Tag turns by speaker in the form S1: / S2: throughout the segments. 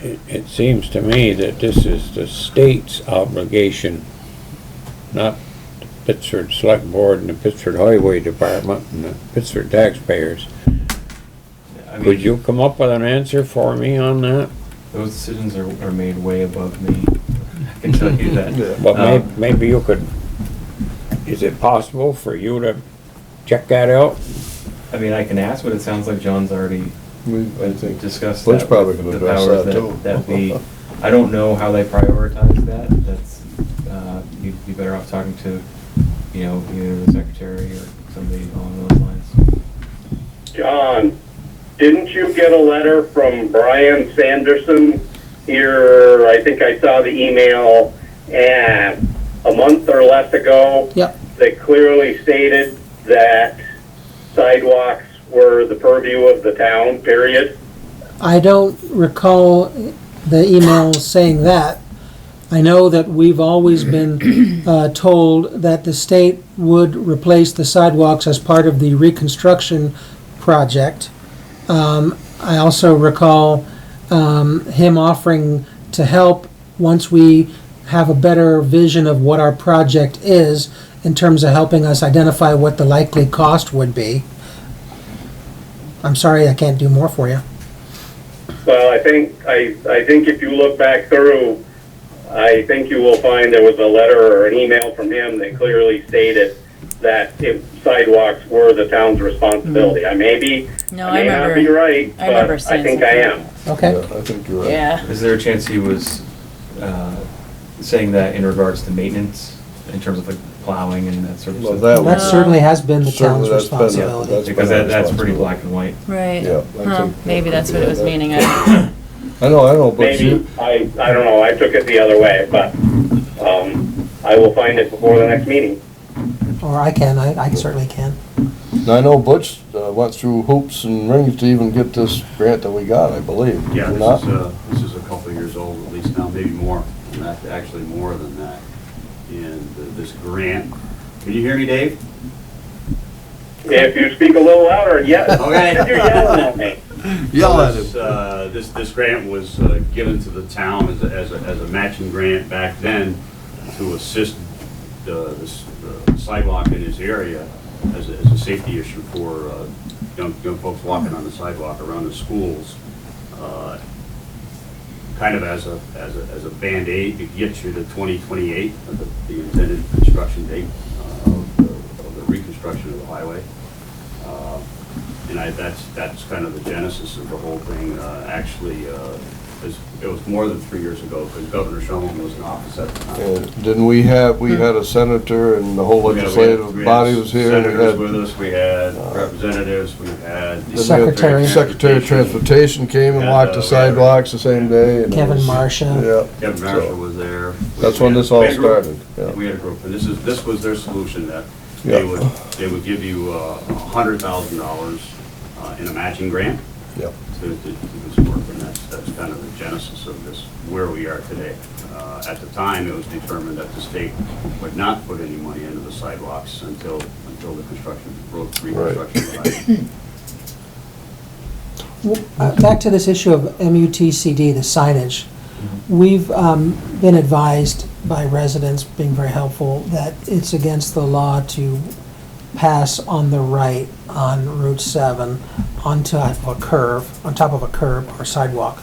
S1: it, it seems to me that this is the state's obligation, not the Pittsburgh Select Board and the Pittsburgh Highway Department and the Pittsburgh taxpayers.
S2: I
S1: Could
S2: mean,
S1: you come up with an answer for me on that?
S2: those decisions are, are made way above me. I can tell you that.
S1: But may,
S2: Um,
S1: maybe you could, is it possible for you to check that out?
S2: I mean, I can ask, but it sounds like John's already uh,
S3: We, I think,
S2: discussed that.
S3: Butch probably
S2: with
S3: can
S2: the
S3: address
S2: powers
S3: that too.
S2: That be, I don't know how they prioritize that. That's, uh, you'd be better off talking to, you know, either the secretary or somebody along those lines.
S4: John, didn't you get a letter from Brian Sanderson here? I think I saw the email and a month or less ago.
S5: Yep.
S4: That clearly stated that sidewalks were the purview of the town, period.
S5: I don't recall the email saying that. I know that we've always been uh, told that the state would replace the sidewalks as part of the reconstruction project. Um, I also recall um, him offering to help once we have a better vision of what our project is in terms of helping us identify what the likely cost would be. I'm sorry, I can't do more for you.
S4: Well, I think, I, I think if you look back through, I think you will find there was a letter or an email from him that clearly stated that if sidewalks were the town's responsibility. I may be,
S6: No, I
S4: I may not be
S6: remember.
S4: right,
S6: I remember
S4: but I
S6: saying
S4: think I
S6: something.
S4: am.
S5: Okay?
S3: yeah, I think you're right.
S6: Yeah.
S2: Is there a chance he was uh, saying that in regards to maintenance, in terms of like plowing and that sort of
S3: Well,
S2: stuff?
S3: that
S5: That
S3: was-
S5: certainly has been the
S3: Certainly
S5: town's
S3: that's been a-
S5: responsibility.
S3: that's been
S2: Because
S3: a
S2: that, that's pretty black
S3: responsibility.
S2: and white.
S6: Right.
S3: Yeah, I
S6: Huh,
S3: think-
S6: maybe that's what it was
S3: Yeah, that-
S6: meaning. I,
S3: I know, I know, but
S4: Maybe,
S3: you,
S4: I, I don't know, I took it the other way, but, um, I will find it before the next meeting.
S5: Or I can, I, I certainly can.
S3: I know Butch uh, went through hoops and rings to even get this grant that we got, I believe.
S7: Yeah,
S3: Did
S7: this
S3: not?
S7: is, uh, this is a couple of years old, at least now, maybe more, in fact, actually more than that. And th- this grant, can you hear me, Dave?
S4: If you speak a little louder, yes,
S7: Okay.
S4: you're yelling at me.
S3: Yell at
S7: This, uh, This, this grant was uh, given to the town as a, as a, as a matching grant back then to assist the the s- the sidewalk in this area as a, as a safety issue for uh, young, young folks walking on the sidewalk around the schools. uh, Kind of as a, as a, as a Band-Aid to get you to 2028, uh, the- the intended construction date uh, of the- of the reconstruction of the highway. Uh, and I, that's, that's kind of the genesis of the whole thing. Uh, Actually, uh, it's- it was more than three years ago, because Governor Shumlin was in office at the time.
S3: And Didn't we have, we had a senator and the whole
S7: We had- we had- we
S3: legislative
S7: had
S3: body was here. and we
S7: Senators
S3: had-
S7: with us, we had representatives, we had.
S3: then we had
S5: Secretary.
S3: Secretary of Transportation came and
S7: Yeah,
S3: walked
S7: uh,
S3: the sidewalks the same day. and it
S5: Kevin
S3: was-
S5: Marsha.
S3: Yeah.
S7: Kevin
S3: So,
S7: Marshall was there.
S3: That's when this all
S7: We had a group-
S3: started, yeah.
S7: We had a group, and this is, this was their solution, that they
S3: Yeah.
S7: would, they would give you uh, a hundred thousand dollars uh, in a matching grant
S3: Yeah.
S7: to, to do this work, and that's, that's kind of the genesis of this, where we are today. Uh, At the time, it was determined that the state would not put any money into the sidewalks until, until the construction, road reconstruction.
S5: W- uh, Back to this issue of MUTCD, the signage. We've um, been advised by residents, being very helpful, that it's against the law to pass on the right on Route 7 onto a curve, on top of a curb or sidewalk.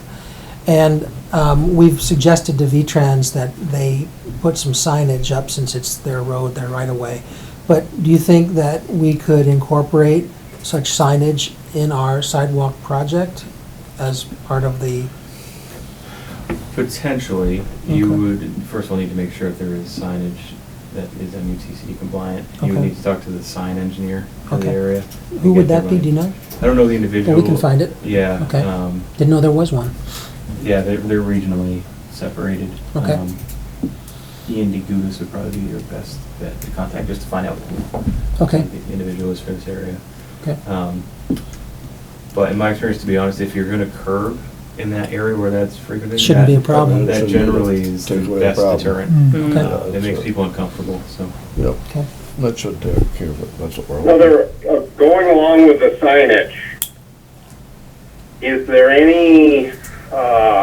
S5: And um, we've suggested to V-Trans that they put some signage up since it's their road, their right-of-way. But do you think that we could incorporate such signage in our sidewalk project as part of the,
S2: Potentially, you
S5: Okay.
S2: would, first of all, need to make sure if there is signage that is MUTCD compliant. You would
S5: Okay.
S2: need to talk to the sign engineer for the
S5: Okay.
S2: area. to
S5: who
S2: get
S5: would
S2: their
S5: that be, do you
S2: mind.
S5: know?
S2: I don't know the individual.
S5: can find it?
S2: Yeah.
S5: Okay.
S2: um,
S5: Didn't know there was one.
S2: Yeah, they're, they're regionally separated.
S5: Okay.
S2: Um, E Ian DeGudis would probably be your best bet to contact, just to find out who
S5: Okay,
S2: the individual is for this area.
S5: okay.
S2: Um, But in my experience, to be honest, if you're gonna curb in that area where that's frequented.
S5: Shouldn't be a
S2: that- uh,
S5: problem. Mm.
S2: That generally is the
S3: Takes away the
S2: best
S3: problem.
S2: deterrent.
S5: Okay.
S2: Uh,
S3: Yeah,
S2: It makes
S3: so-
S2: people uncomfortable, so.
S3: Yep,
S5: Okay.
S3: that should take care of it, that's what we're hoping.
S4: Another, uh, going along with the signage, is there any, uh,